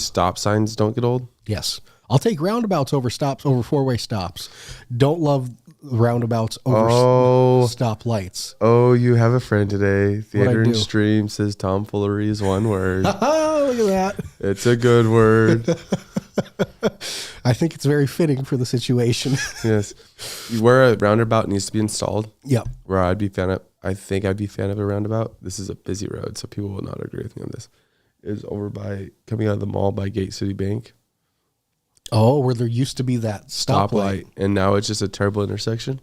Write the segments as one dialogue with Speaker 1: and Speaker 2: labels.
Speaker 1: Stop signs don't get old.
Speaker 2: Yes. I'll take roundabouts over stops over four way stops. Don't love roundabouts over
Speaker 1: Oh.
Speaker 2: s- stop lights.
Speaker 1: Oh, you have a friend today. Theater
Speaker 2: do?
Speaker 1: and stream says tomfoolery is one word.
Speaker 2: Oh, look at that.
Speaker 1: it's a good word.
Speaker 2: I think it's very fitting for the situation.
Speaker 1: yes. Where a roundabout needs to be installed,
Speaker 2: yep.
Speaker 1: where I'd be fan of, I think I'd be fan of a roundabout. This is a busy road, so people will not agree with me on this. Is over by coming out of the mall by Gate City Bank
Speaker 2: Oh, where there used to be that stoplight.
Speaker 1: stoplight, and now it's just a terrible intersection.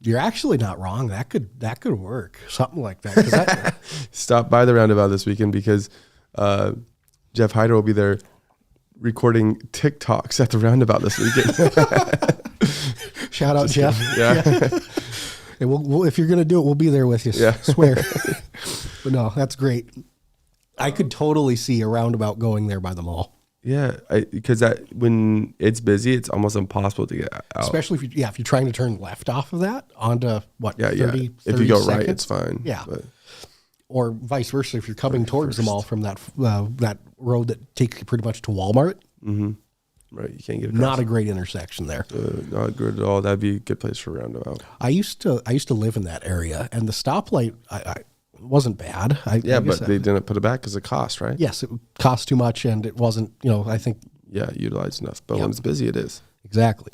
Speaker 2: You're actually not wrong. That could that could work. Something like that. 'Cause that-
Speaker 1: Stop by the roundabout this weekend because uh, Jeff Hyder will be there recording TikToks at the roundabout this weekend.
Speaker 2: shout out Jeff.
Speaker 1: yeah.
Speaker 2: And we'll, we'll, if you're gonna do it, we'll be there with you. s-
Speaker 1: Yeah.
Speaker 2: Swear. but no, that's great. I could totally see a roundabout going there by the mall,
Speaker 1: Yeah, because that when it's busy, it's almost impossible to get out.
Speaker 2: especially if you yeah if you're trying to turn left off of that onto what
Speaker 1: yeah,
Speaker 2: 30,
Speaker 1: yeah.
Speaker 2: 30
Speaker 1: if you go right,
Speaker 2: seconds?
Speaker 1: it's fine.
Speaker 2: Yeah.
Speaker 1: but
Speaker 2: or vice versa if you're coming towards the mall from that uh, that road that takes you pretty much to Walmart.
Speaker 1: right, you can't get across.
Speaker 2: Not a great intersection there.
Speaker 1: uh, not good at all. That'd be a good place for a roundabout.
Speaker 2: I used to I used to live in that area, and the stoplight I, I wasn't bad. I, I
Speaker 1: Yeah,
Speaker 2: guess
Speaker 1: but
Speaker 2: I-
Speaker 1: they didn't put it back because of cost, right?
Speaker 2: yes, it cost too much, and it wasn't. You know, I think
Speaker 1: Yeah, utilized enough, but when it's busy, it is.
Speaker 2: exactly.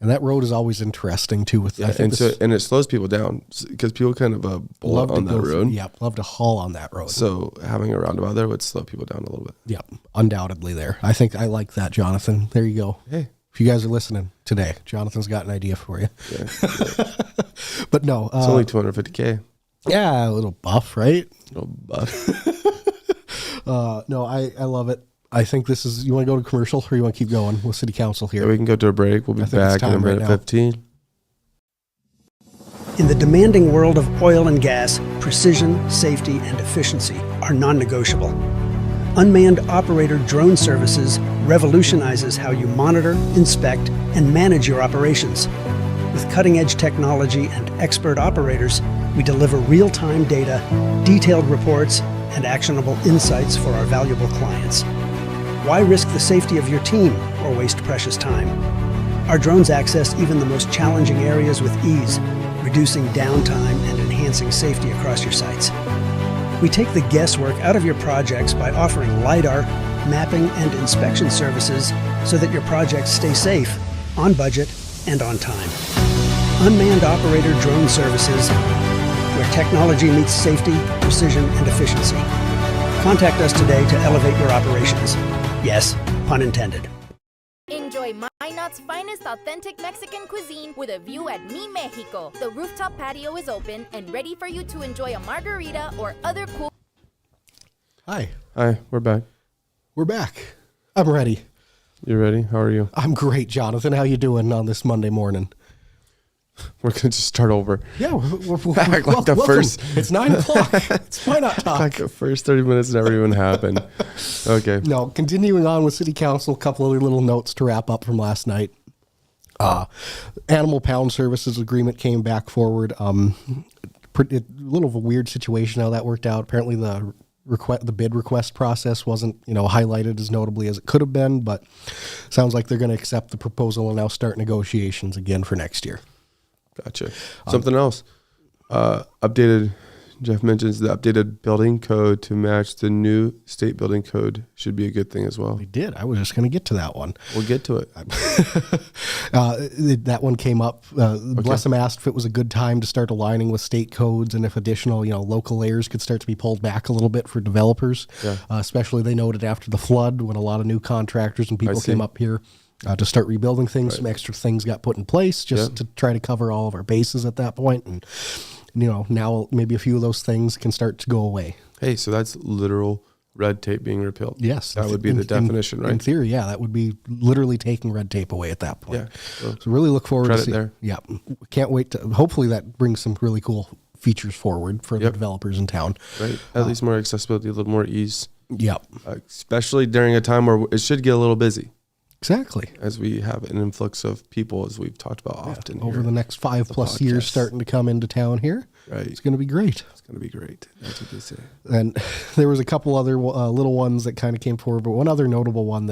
Speaker 2: And that road is always interesting too. With I think
Speaker 1: And
Speaker 2: this,
Speaker 1: so and it slows people down because people kind of uh, bullet on that
Speaker 2: go-
Speaker 1: road.
Speaker 2: Yep, love to haul on that road.
Speaker 1: So having a roundabout there would slow people down a little bit.
Speaker 2: Yep, undoubtedly there. I think I like that, Jonathan. There you go.
Speaker 1: Hey.
Speaker 2: If you guys are listening today, Jonathan's got an idea for you. but no, uh,
Speaker 1: It's only 250k.
Speaker 2: yeah, a little buff, right?
Speaker 1: Little buff.
Speaker 2: Uh, no, I, I love it. I think this is. You want to go to commercial or you want to keep going with city council here?
Speaker 1: yeah, we can go to a break. We'll be
Speaker 2: think it's
Speaker 1: back in a
Speaker 2: time right
Speaker 1: minute
Speaker 2: now.
Speaker 1: 15.
Speaker 3: In the demanding world of oil and gas, precision, safety, and efficiency are non negotiable. Unmanned operator drone services revolutionizes how you monitor, inspect, and manage your operations. With cutting edge technology and expert operators, we deliver real time data, detailed reports, and actionable insights for our valuable clients. Why risk the safety of your team or waste precious time? Our drones access even the most challenging areas with ease, reducing downtime and enhancing safety across your sites. We take the guesswork out of your projects by offering LiDAR, mapping, and inspection services so that your projects stay safe, on budget, and on time. Unmanned Operator Drone Services, where technology meets safety, precision, and efficiency. Contact us today to elevate your operations. Yes, pun intended.
Speaker 4: Enjoy Minot's finest authentic Mexican cuisine with a view at Mi Mexico. The rooftop patio is open and ready for you to enjoy a margarita or other cool.
Speaker 2: Hi,
Speaker 1: Hi, we're back.
Speaker 2: we're back. I'm ready.
Speaker 1: You ready? How are you?
Speaker 2: I'm great, Jonathan. How you doing on this Monday morning?
Speaker 1: We're gonna just start over.
Speaker 2: Yeah, we're, we're, we're,
Speaker 1: Act like
Speaker 2: wel-
Speaker 1: the
Speaker 2: welcome.
Speaker 1: first-
Speaker 2: It's nine o'clock. It's why not talk?
Speaker 1: Like the first 30 minutes never even happened. Okay.
Speaker 2: No, continuing on with city council, a couple other little notes to wrap up from last night. Uh, animal pound services agreement came back forward. Um, pretty, a little of a weird situation how that worked out. Apparently, the request, the bid request process wasn't you know highlighted as notably as it could have been, but sounds like they're going to accept the proposal and now start negotiations again for next year. Um,
Speaker 1: Gotcha. Something else. Uh, updated. Jeff mentions the updated building code to match the new state building code should be a good thing as well.
Speaker 2: We did. I was just going to get to that one.
Speaker 1: We'll get to it.
Speaker 2: uh, th- that one came up. Uh, Bless him asked if it was a good time to start aligning with state codes and if additional, you know, local layers could start to be pulled back a little bit for developers. Uh, especially they noted after the flood when a lot of new contractors and people came
Speaker 1: see.
Speaker 2: up here uh, to start rebuilding things. Some extra things got put in place just to try to cover all of our bases at that point. And you know, now maybe a few of those things can start to go away.
Speaker 1: Hey, so that's literal red tape being repealed.
Speaker 2: Yes,
Speaker 1: That would be
Speaker 2: in-
Speaker 1: the
Speaker 2: in-
Speaker 1: definition,
Speaker 2: In
Speaker 1: right?
Speaker 2: theory, yeah, that would be literally taking red tape away at that point.
Speaker 1: Yeah, so-
Speaker 2: So really look forward to
Speaker 1: Credit
Speaker 2: see.
Speaker 1: there.
Speaker 2: Yeah, can't wait to. Hopefully that brings some really cool features forward for the
Speaker 1: Yep.
Speaker 2: developers in town.
Speaker 1: right.
Speaker 2: Uh,
Speaker 1: At least more accessibility, a little more ease,
Speaker 2: Yep,
Speaker 1: especially during a time where it should get a little busy
Speaker 2: exactly.
Speaker 1: as we have an influx of people, as we've talked about often.
Speaker 2: Over
Speaker 1: here.
Speaker 2: the next five plus years,
Speaker 1: podcast.
Speaker 2: starting to come into town here,
Speaker 1: Right.
Speaker 2: It's going to be great.
Speaker 1: It's going to be great. That's what they say.
Speaker 2: And there was a couple other uh, little ones that kind of came forward, but one other notable one